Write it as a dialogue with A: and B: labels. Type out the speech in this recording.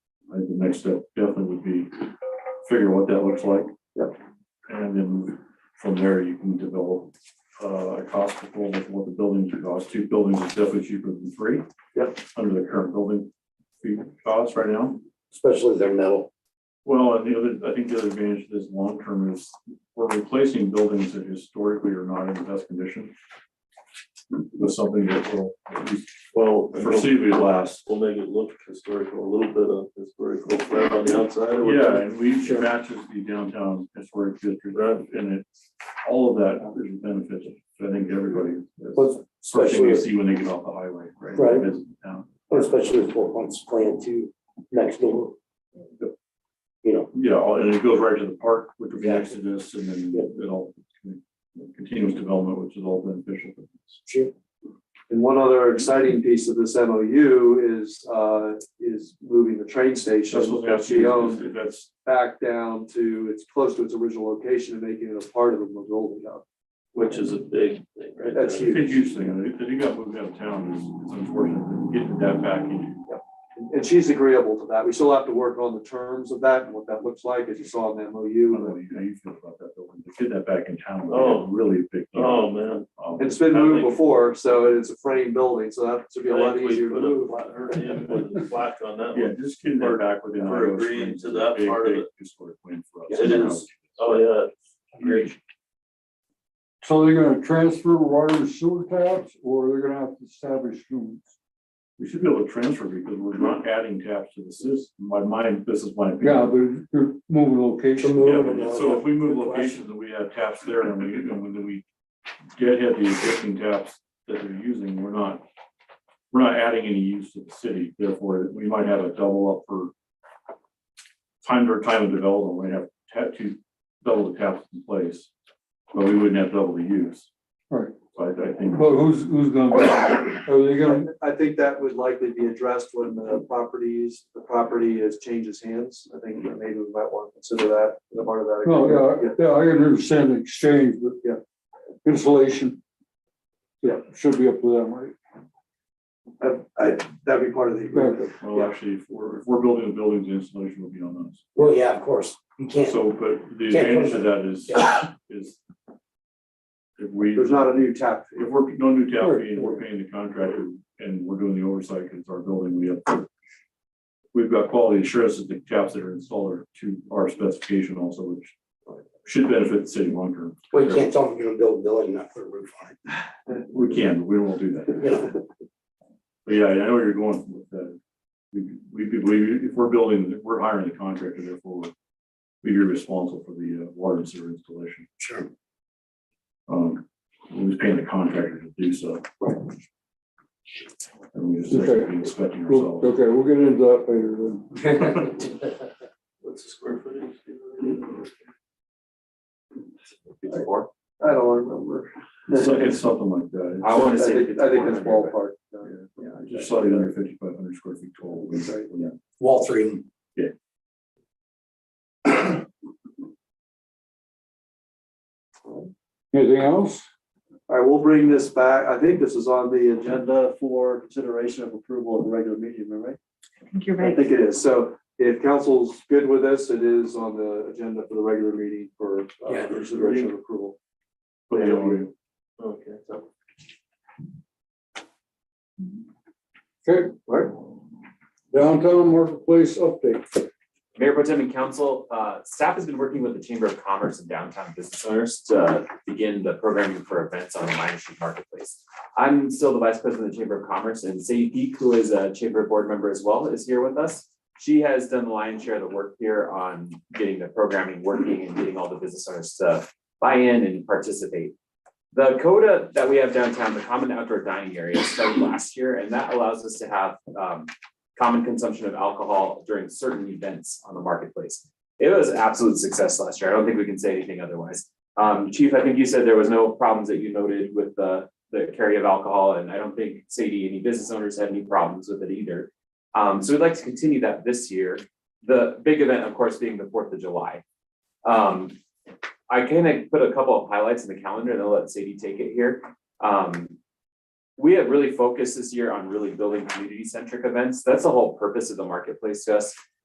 A: the next step definitely would be figure what that looks like.
B: Yep.
A: And then from there, you can develop uh, a cost proposal for what the buildings would cost. Two buildings is definitely cheaper than three.
B: Yep.
A: Under the current building fee costs right now.
B: especially their metal.
A: Well, and the other, I think the other advantage of this long term is we're replacing buildings that historically are not in the best condition. With something that will at least
C: Well,
A: foreseeably last.
C: we'll make it look historical, a little bit of historical flair on the outside. or
A: Yeah,
C: whatever.
A: and we matches the downtown historic district,
C: Right.
A: and it, all of that is beneficial. So I think everybody, that's the
B: But
A: first thing
B: especially,
A: you see when they get off the highway, right?
B: Right.
A: Is down.
B: especially with Four Points Plan Two next door. You know,
A: Yeah, all- and it goes right to the park, which would be next to this, and then it all continuous development, which is all beneficial. for this.
B: shoot,
D: And one other exciting piece of this MOU is, uh, is moving the train
A: That's
D: station
A: what
D: that she owns
A: that's- That's,
D: back down to, it's close to its original location and making it a part of the Mongolia Hub.
C: Which is a big thing, right?
D: That's
C: there.
A: it's a huge thing, and it, it got moved out of town, it's- it's unfortunate, getting that back in.
D: And- And she's agreeable to that. We still have to work on the terms of that and what that looks like, as you saw in the
A: I don't
D: MOU.
A: know How you feel about that building, to get that back in town,
C: Oh.
A: was a really big. deal.
C: Oh, man.
A: Um,
D: And it's been
C: I
D: moved
C: think-
D: before, so it's a frame building, so that should be a
C: I
D: lot
C: think we
D: easier to
C: put a
D: move.
C: plaque- or, yeah, put a plaque on that
A: Yeah,
C: one.
A: just getting that back within.
C: For
A: Iowa
C: agreeing
A: Springs
C: to
A: is a
C: that
A: big,
C: part of
A: big
C: it.
A: Historic win for us.
C: It is. Oh, yeah. Great.
E: So they're gonna transfer water and sewer taps, or they're gonna have to establish new?
A: We should be able to transfer because we're not adding taps to the system. My mind, this is my.
E: Yeah,
A: opinion.
E: they're, they're moving
B: to
E: location.
A: Yeah,
B: move. and
A: but
B: all
A: so
B: that.
A: if we move
B: Good question.
A: locations and we have taps there and we, and when we deadhead the existing taps that they're using, we're not. We're not adding any use to the city, therefore we might have a double up for. Time to time of development, we have tap two, double the taps in place, but we wouldn't have double the use.
E: Right.
A: So I, I think.
E: But who's, who's gonna, are they gonna,
D: I think that would likely be addressed when the properties, the property is changes hands. I think that maybe we might want to consider that as a part of that.
E: no,
D: agreement.
E: Oh, yeah, yeah, I understand the exchange, but yeah, insulation. Yeah, should be up to them, right?
D: I, I, that'd be part of the agreement.
E: Yeah.
A: Well, actually, if we're, if we're building a building, the installation will be on us.
B: Well, yeah, of course, you can't,
A: So, but the
B: Can't
A: advantage
B: put
A: of that is, is if we,
D: There's
A: if
D: not a new tap fee.
A: we're, no new tap fee and
E: Sure.
A: we're paying the contractor and we're doing the oversight because our building, we have we've got quality assurance that the taps that are installed are to our specification also, which should benefit the city long term.
B: well, you can't tell them you're gonna build a building and not put a roof on it,
A: We can, but we won't do that.
B: you know,
A: But yeah, I know where you're going with that. We, we, we, if we're building, if we're hiring the contractor, therefore we'd be responsible for the uh, water and sewer installation.
B: sure.
A: Um, we was paying the contractor to do so. And we just
E: Okay.
A: be inspecting
E: Well,
A: ourselves.
E: Okay, we'll get into that later then.
C: What's the square footage?
D: I don't remember.
A: It's like- it's something like that.
F: I wanna say
D: think- I think it's
F: 100,
D: ballpark. uh,
A: It's- Yeah, yeah, just slightly under fifty-five hundred square feet total. Yeah.
B: Wall three of them.
E: Anything else?
D: All right, we'll bring this back. I think this is on the agenda for consideration of approval of the regular meeting, am I right?
G: think you're
D: I
G: right.
D: think it is. So if council's good with this, it is on the agenda for the regular meeting for uh,
B: Yeah.
D: consideration of approval.
A: But yeah, we-
C: Okay, so
E: Okay, downtown marketplace update.
F: Mayor Pro Tem and Council, uh, staff has been working with the Chamber of Commerce and downtown business owners to begin the programming for events on the Lion Street Marketplace. I'm still the Vice President of the Chamber of Commerce, and Sadie Peak, who is a Chamber Board member as well, is here with us. She has done the lion's share of the work here on getting the programming working and getting all the business owners to buy in and participate. The coda that we have downtown, the common outdoor dining area, started last year, and that allows us to have um, common consumption of alcohol during certain events on the marketplace. It was an absolute success last year. I don't think we can say anything otherwise. Um, Chief, I think you said there was no problems that you noted with the, the carry of alcohol, and I don't think Sadie, any business owners had any problems with it either. Um, so we'd like to continue that this year. The big event, of course, being the Fourth of July. Um, I kind of put a couple of highlights in the calendar, and I'll let Sadie take it here. Um, we have really focused this year on really building community centric events. That's the whole purpose of the marketplace to us.